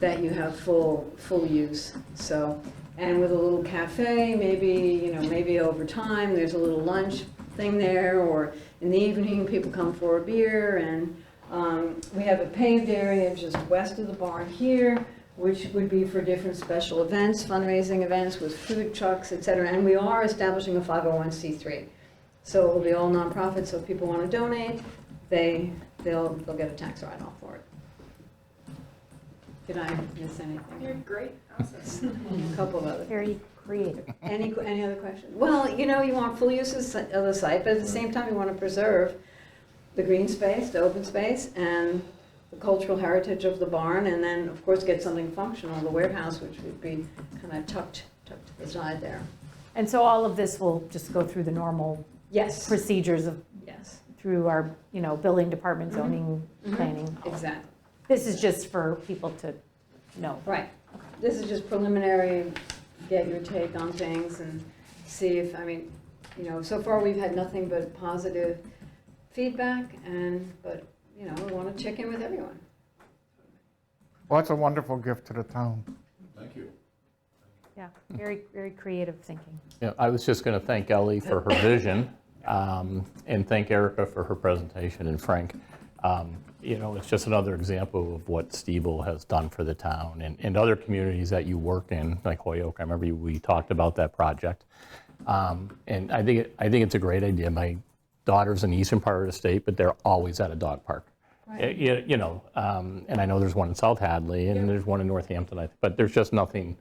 that you have full, full use, so. And with a little cafe, maybe, you know, maybe over time, there's a little lunch thing there, or in the evening, people come for a beer, and um, we have a paved area just west of the barn here, which would be for different special events, fundraising events with food trucks, et cetera. And we are establishing a 501c3. So it will be all nonprofit, so if people want to donate, they, they'll, they'll get a tax write-off for it. Did I miss You're anything? great, awesome. A couple of other, Very creative. any, any other questions? Well, you know, you want full use of si- of the site, but at the same time, you want to preserve the green space, the open space, and the cultural heritage of the barn, and then, of course, get something functional, the warehouse, which would be kind of tucked, tucked to the side there. And so all of this will just go through the normal Yes, procedures of, yes, through our, you know, building department, zoning, Mhm. planning. exactly, This is just for people to know. right. This is just preliminary, get your take on things and see if, I mean, you know, so far we've had nothing but positive feedback and, but, you know, we want to check in with everyone. Well, that's a wonderful gift to the town. Thank you. Yeah, very, very creative thinking. Yeah, I was just going to thank Ellie for her vision, um, and thank Erica for her presentation, and Frank. Um, You know, it's just another example of what Stevel has done for the town and, and other communities that you work in, like Hoyoke. I remember you- we talked about that project. Um, And I think, it- I think it's a great idea. My daughter's in the eastern part of the state, but they're always at a dog park. Eh, You you know, um, and I know there's one in South Hadley, and there's one in Northampton, I- but there's just nothing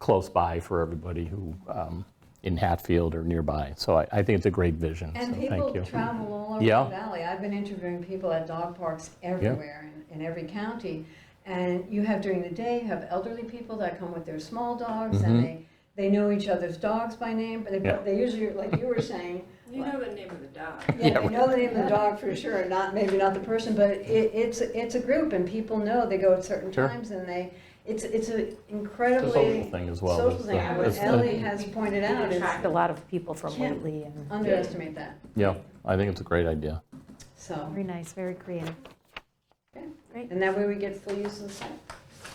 close by for everybody who, um, in Hatfield or nearby. So I, I think it's a great vision, so And thank people you. travel all over Yeah. the valley. I've been interviewing people at dog parks everywhere in, in every county. And you have during the day, you have elderly people that come with their small dogs and they, they know each other's dogs by name, but Mm-hmm. Yeah. they, they usually, like you were saying, You know the name of the dog. Yeah, they know the name of the dog for sure, not, maybe not the person, but it, it's, it's a group and people know, they go at certain Sure. times and they, it's, it's an It's a social incredibly thing as well. social It's thing. the- And What it's the- Ellie has pointed out is Attract a lot of people from Yeah. Whately and, underestimate that, Yeah, I think it's a great idea. so. very nice, very creative. And that way we get full use of the site.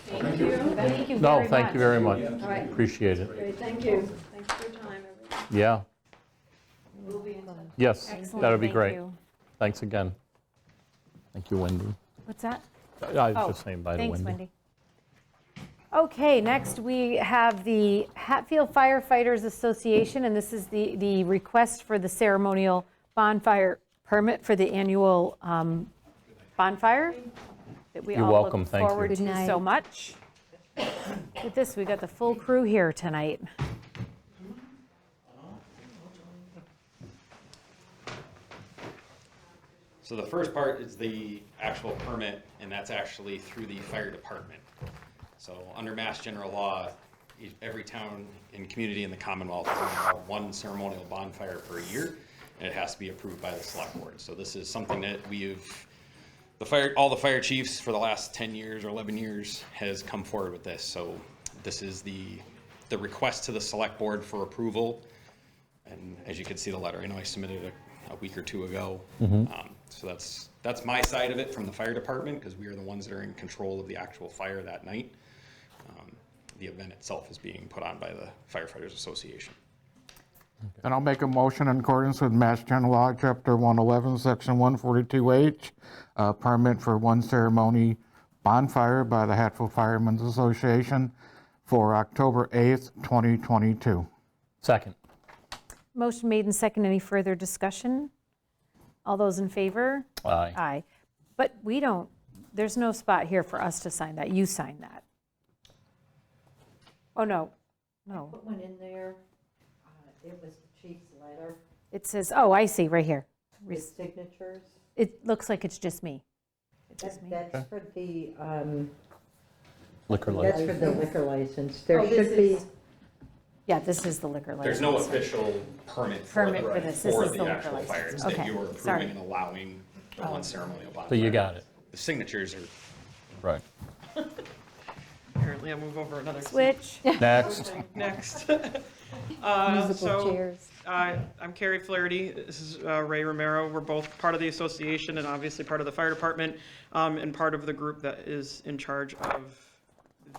Thank you. Thank you very No, much. thank you very much. Yeah. All right, Appreciate it. great, thank you. Thanks for your time, everyone. Yeah, We'll be in touch. yes, Excellent, that'd be thank great. you. Thanks again. Thank you, Wendy. What's that? I was Oh, just saying bye to Thanks, Wendy. Okay, next we have the Hatfield Firefighters Association, and this is the, the request for the ceremonial bonfire permit for the annual um, bonfire that we You're all welcome, look thank you. forward Good to so much. With this, we got the full crew here tonight. So the first part is the actual permit, and that's actually through the fire department. So under Mass General Law, e- every town and community in the Commonwealth can have one ceremonial bonfire per year, and it has to be approved by the select board. So this is something that we've, the fire, all the fire chiefs for the last ten years or eleven years has come forward with this. So this is the, the request to the select board for approval. And as you can see the letter, I know I submitted it a, a week or two ago. Mm-hmm. Um, So that's, that's my side of it from the fire department, because we are the ones that are in control of the actual fire that night. Um, The event itself is being put on by the Firefighters Association. And I'll make a motion in accordance with Mass General Law, Chapter 111, Section 142H, uh, permit for one ceremony bonfire by the Hatfield Firemen's Association for October 8th, 2022. Second. Motion made and second. Any further discussion? All those in favor? Aye. Aye. But we don't, there's no spot here for us to sign that. You sign that. Oh, no, no. Put one in there, uh, it was the chief's letter, It says, oh, I see, right here. his signatures. It looks like it's just me. That- That's for the, um, Liquor that's license. for the liquor license. There Oh, this should be, is- Yeah, this is the liquor license. There's no official permit for the, Permit for this. This for is the the liquor actual fire. It's license. that Okay. you are Sorry. Oh. approving and allowing the one ceremonial bonfire. So you got it. The signatures are, Right. Apparently, I'll move over another. Switch. Uh, Next. Next. Uh, Musical so, chairs. uh, I'm Carrie Flaherty. This is uh, Ray Romero. We're both part of the association and obviously part of the fire department um, and part of the group that is in charge of